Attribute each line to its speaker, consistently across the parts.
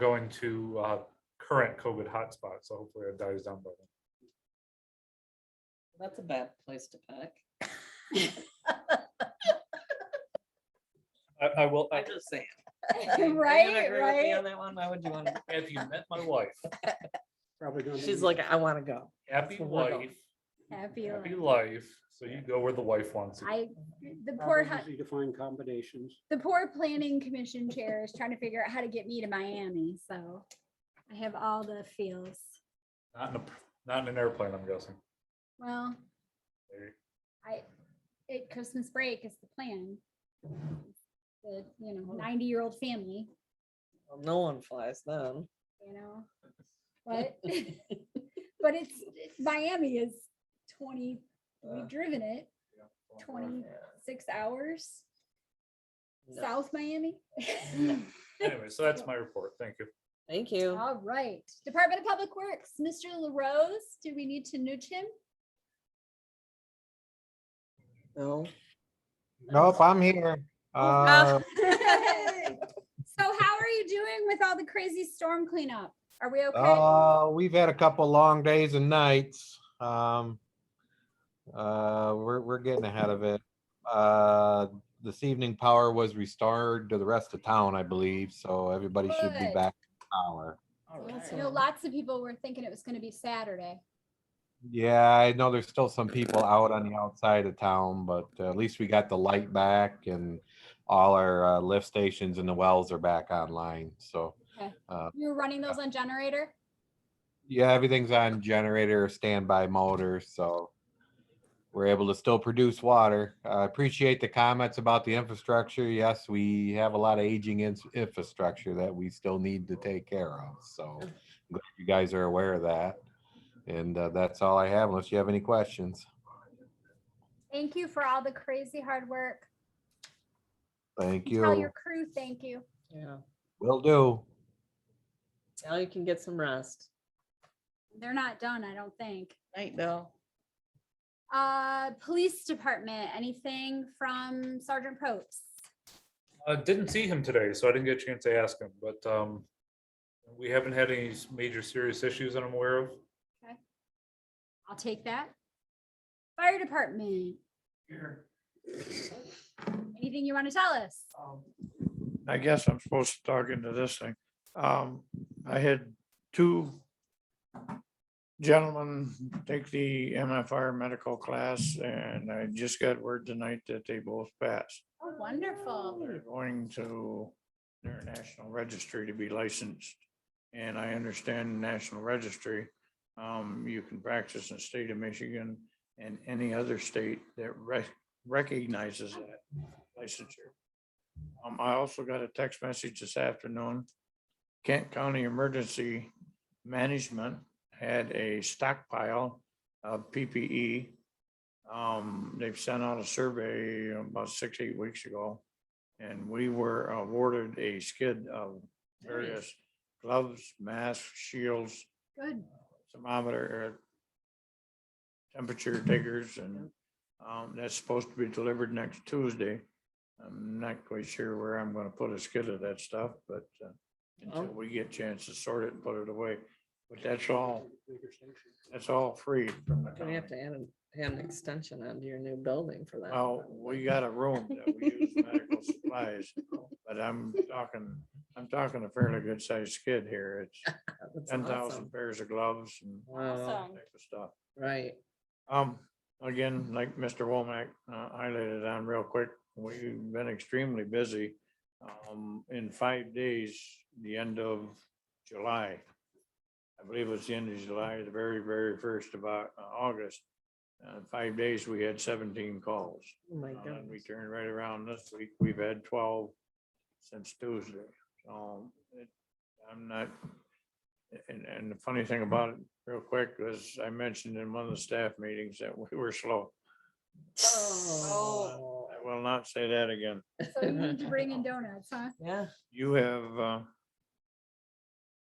Speaker 1: going to uh, current COVID hotspots, so hopefully it dies down by then.
Speaker 2: That's a bad place to pick.
Speaker 1: I, I will,
Speaker 2: I just saying.
Speaker 3: Right, right.
Speaker 2: On that one, why would you want to?
Speaker 1: have you met my wife?
Speaker 4: Probably gonna.
Speaker 2: She's
Speaker 4: be-
Speaker 2: like, I want to go.
Speaker 1: Happy
Speaker 2: So we're going.
Speaker 1: life,
Speaker 3: Happy
Speaker 1: happy
Speaker 3: life.
Speaker 1: life. So you go where the wife wants you.
Speaker 3: I, the poor,
Speaker 4: probably
Speaker 3: hu-
Speaker 4: Easy to find combinations.
Speaker 3: the poor planning commission chair is trying to figure out how to get me to Miami, so I have all the feels.
Speaker 1: Not in a, not in an airplane, I'm guessing.
Speaker 3: Well,
Speaker 1: There-
Speaker 3: I, it, Christmas break is the plan. The, you know, ninety-year-old family,
Speaker 2: Well, No one flies then.
Speaker 3: you know, but, but it's, Miami is twenty,
Speaker 2: Uh,
Speaker 3: we've driven it
Speaker 1: oh, yeah,
Speaker 3: twenty-six hours,
Speaker 2: no.
Speaker 3: South Miami.
Speaker 1: Anyway, so that's my report. Thank you.
Speaker 2: Thank you.
Speaker 3: All right, Department of Public Works, Mr. LaRose, do we need to nudge him?
Speaker 2: No.
Speaker 5: Nope, I'm here.
Speaker 3: Oh,
Speaker 5: Uh,
Speaker 3: So how are you doing with all the crazy storm cleanup? Are we okay?
Speaker 5: uh, we've had a couple long days and nights. Um, uh, we're, we're getting ahead of it. Uh, this evening power was restored to the rest of town, I believe, so everybody should be
Speaker 3: Good.
Speaker 5: back to power.
Speaker 3: You know, lots of people were thinking it was gonna be Saturday.
Speaker 5: Yeah, I know there's still some people out on the outside of town, but uh, at least we got the light back and all our uh, lift stations and the wells are back online, so.
Speaker 3: Okay.
Speaker 5: uh,
Speaker 3: You were running those on generator?
Speaker 5: Yeah, everything's on generator or standby motor, so we're able to still produce water. I appreciate the comments about the infrastructure. Yes, we have a lot of aging ins- infrastructure that we still need to take care of, so I'm glad you guys are aware of that. And uh, that's all I have unless you have any questions.
Speaker 3: Thank you for all the crazy hard work.
Speaker 5: Thank
Speaker 3: Tell your
Speaker 5: you.
Speaker 3: crew, thank you.
Speaker 2: Yeah.
Speaker 5: Will do.
Speaker 2: Now you can get some rest.
Speaker 3: They're not done, I don't think.
Speaker 2: Night, Bill.
Speaker 3: Uh, Police Department, anything from Sergeant Probst?
Speaker 1: Uh, didn't see him today, so I didn't get a chance to ask him, but, um, we haven't had any s- major serious issues that I'm aware of.
Speaker 3: I'll take that. Fire Department,
Speaker 6: Here,
Speaker 3: anything you want to tell us?
Speaker 6: um, I guess I'm supposed to talk into this thing. Um, I had two gentlemen take the MFR medical class and I just got word tonight that they both passed.
Speaker 3: Oh, wonderful.
Speaker 6: They're going to their national registry to be licensed. And I understand national registry, um, you can practice in the state of Michigan and any other state that rec- recognizes that licensure. Um, I also got a text message this afternoon. Kent County Emergency Management had a stockpile of PPE. Um, they've sent out a survey about six, eight weeks ago. And we were awarded a skid of various gloves, masks, shields,
Speaker 3: Good.
Speaker 6: thermometer, uh, temperature takers, and um, that's supposed to be delivered next Tuesday. I'm not quite sure where I'm gonna put a skid of that stuff, but uh,
Speaker 2: Oh.
Speaker 6: until we get a chance to sort it and put it away. But that's all,
Speaker 4: Bigger station.
Speaker 6: that's all free from the
Speaker 2: You're gonna have
Speaker 6: county.
Speaker 2: to add, an- add an extension onto your new building for that.
Speaker 6: Well, we got a room that we use medical supplies, but I'm talking, I'm talking a fairly good sized skid here. It's
Speaker 2: That's
Speaker 6: ten
Speaker 2: awesome.
Speaker 6: thousand pairs of gloves and
Speaker 2: Wow,
Speaker 6: that type of stuff.
Speaker 2: right.
Speaker 6: Um, again, like Mr. Womack uh, highlighted on real quick, we've been extremely busy. Um, in five days, the end of July. I believe it was the end of July, the very, very first of Au- uh, August. Uh, five days, we had seventeen calls.
Speaker 2: Oh my
Speaker 6: Uh, and We
Speaker 2: goodness.
Speaker 6: turned right around this week. We've had twelve since Tuesday. So it- I'm not, and, and the funny thing about it, real quick, was I mentioned in one of the staff meetings that we were slow.
Speaker 2: Oh.
Speaker 6: I will not say that again.
Speaker 3: So you need to bring in donuts, huh?
Speaker 2: Yeah.
Speaker 6: You have uh,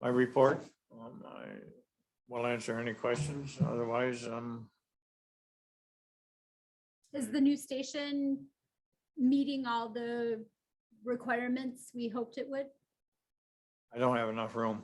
Speaker 6: my report. Um, I will answer any questions. Otherwise, um,
Speaker 3: Is the new station meeting all the requirements we hoped it would?
Speaker 6: I don't have enough room.